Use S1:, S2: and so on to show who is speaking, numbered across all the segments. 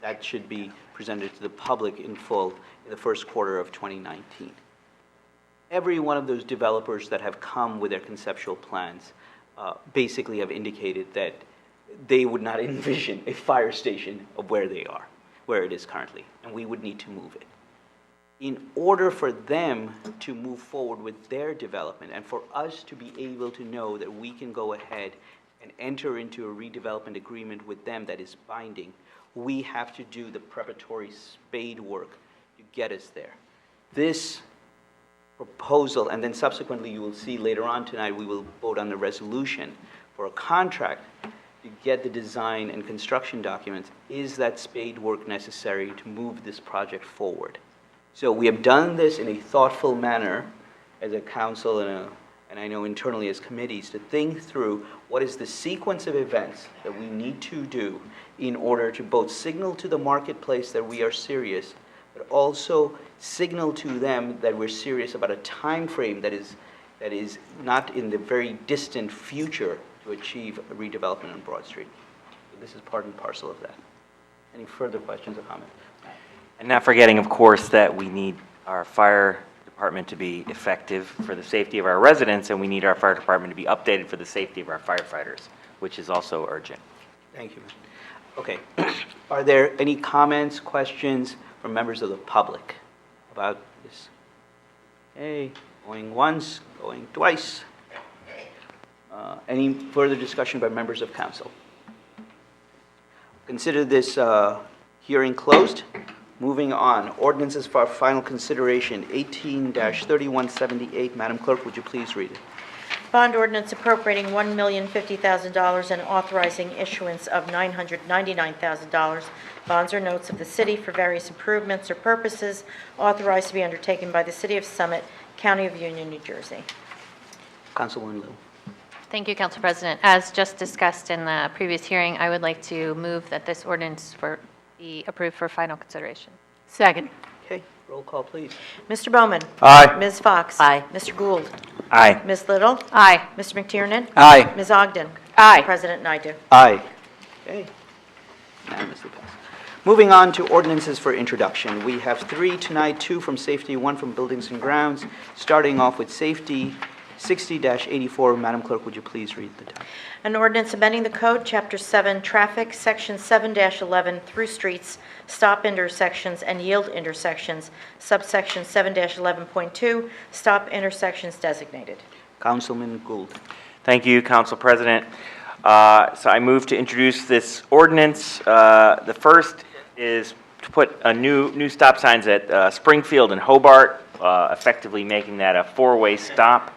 S1: that should be presented to the public in full in the first quarter of 2019. Every one of those developers that have come with their conceptual plans uh, basically have indicated that they would not envision a fire station of where they are, where it is currently, and we would need to move it in order for them to move forward with their development and for us to be able to know that we can go ahead and enter into a redevelopment agreement with them that is binding, we have to do the preparatory spade work to get us there. This proposal, and then subsequently, you will see later on tonight, we will vote on the resolution for a contract to get the design and construction documents. Is that spade work necessary to move this project forward? So we have done this in a thoughtful manner as a council and a, and I know internally as committees, to think through what is the sequence of events that we need to do in order to both signal to the marketplace that we are serious, but also signal to them that we're serious about a time frame that is, that is not in the very distant future to achieve redevelopment on Broad Street. So This is part and parcel of that. Any further questions or comments?
S2: And not forgetting, of course, that we need our fire department to be effective for the safety of our residents, and we need our fire department to be updated for the safety of our firefighters, which is also urgent.
S1: Thank you. ma'am. Okay. Are there any comments, questions from members of the public about this? Okay, going once, going twice. Uh, Any further discussion by members of council? Consider this uh, hearing closed. Moving on, ordinances for final consideration, 18-3178. Madam Clerk, would you please read it?
S3: Bond ordinance appropriating $1,050,000 and authorizing issuance of $999,000 bonds or notes of the city for various improvements or purposes authorized to be undertaken by the City of Summit, County of Union, New Jersey.
S1: Councilwoman Liu.
S4: Thank you, Council President. As just discussed in the previous hearing, I would like to move that this ordinance for- be approved for final consideration.
S5: Second.
S1: Okay, roll call, please.
S3: Mr. Bowman?
S2: Aye.
S3: Ms. Fox?
S5: Aye.
S3: Mr. Gould?
S2: Aye.
S3: Ms. Little?
S4: Aye.
S3: Mr. McTiernan?
S1: Aye.
S3: Ms. Ogden?
S5: Aye.
S3: President Naidoo?
S1: Aye. Okay. Unanimously passed. Moving on to ordinances for introduction. We have three tonight, two from safety, one from buildings and grounds. Starting off with safety, 60-84. Madam Clerk, would you please read the title?
S3: An ordinance amending the code, Chapter 7, Traffic, Section 7-11, Through Streets, Stop Intersections and Yield Intersections, subsection 7-11.2, Stop Intersections Designated.
S1: Councilman Gould.
S2: Thank you, Council President. Uh, So I move to introduce this ordinance. Uh, The first is to put a new, new stop signs at uh, Springfield and Hobart, uh, effectively making that a four-way stop.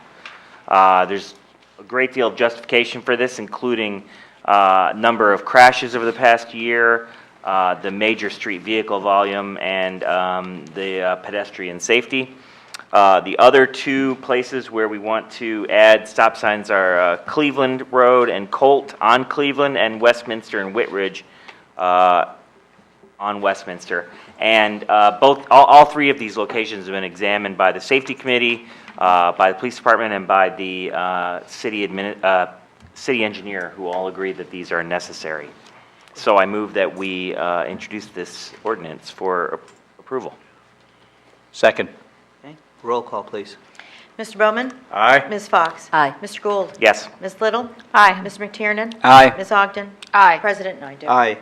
S2: Uh, There's a great deal of justification for this, including uh, number of crashes over the past year, uh, the major street vehicle volume, and um, the uh, pedestrian safety. Uh, The other two places where we want to add stop signs are uh, Cleveland Road and Colt on Cleveland, and Westminster and Whitridge uh, on Westminster. And uh, both, all, all three of these locations have been examined by the Safety Committee, uh, by the Police Department, and by the uh, city admin, uh, city engineer, who all agree that these are necessary. So I move that we uh, introduce this ordinance for approval.
S6: Second.
S1: Okay, roll call, please.
S3: Mr. Bowman?
S6: Aye.
S3: Ms. Fox?
S5: Aye.
S3: Mr. Gould?
S2: Yes.
S3: Ms. Little?
S4: Aye.
S3: Mr. McTiernan?
S6: Aye.
S3: Ms. Ogden?
S4: Aye.
S3: President Naidoo?
S1: Aye.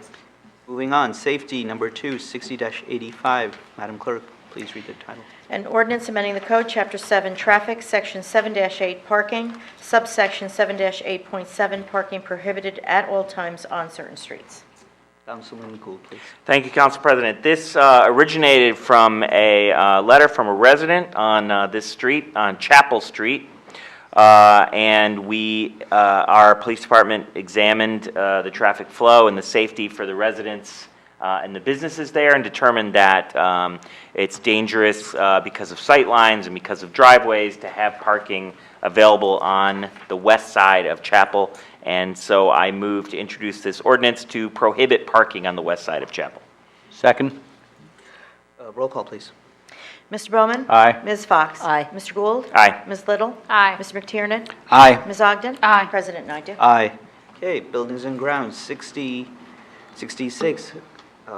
S1: Moving on, safety, number two, 60-85. Madam Clerk, please read the title.
S3: An ordinance amending the code, Chapter 7, Traffic, Section 7-8, Parking, subsection 7-8.7, Parking Prohibited at All Times on Certain Streets.
S1: Councilman Gould, please.
S2: Thank you, Council President. This uh, originated from a uh, letter from a resident on uh, this street, on Chapel Street. Uh, And we, uh, our police department examined uh, the traffic flow and the safety for the residents uh, and the businesses there and determined that um, it's dangerous uh, because of sightlines and because of driveways to have parking available on the west side of Chapel. And so I move to introduce this ordinance to prohibit parking on the west side of Chapel.
S6: Second.
S1: Uh, Roll call, please.
S3: Mr. Bowman?
S6: Aye.
S3: Ms. Fox?
S5: Aye.
S3: Mr. Gould?
S2: Aye.
S3: Ms. Little?
S4: Aye.
S3: Mr. McTiernan?
S6: Aye.
S3: Ms. Ogden?
S4: Aye.
S3: President Naidoo?
S1: Aye. Okay, buildings and grounds, 60, 66.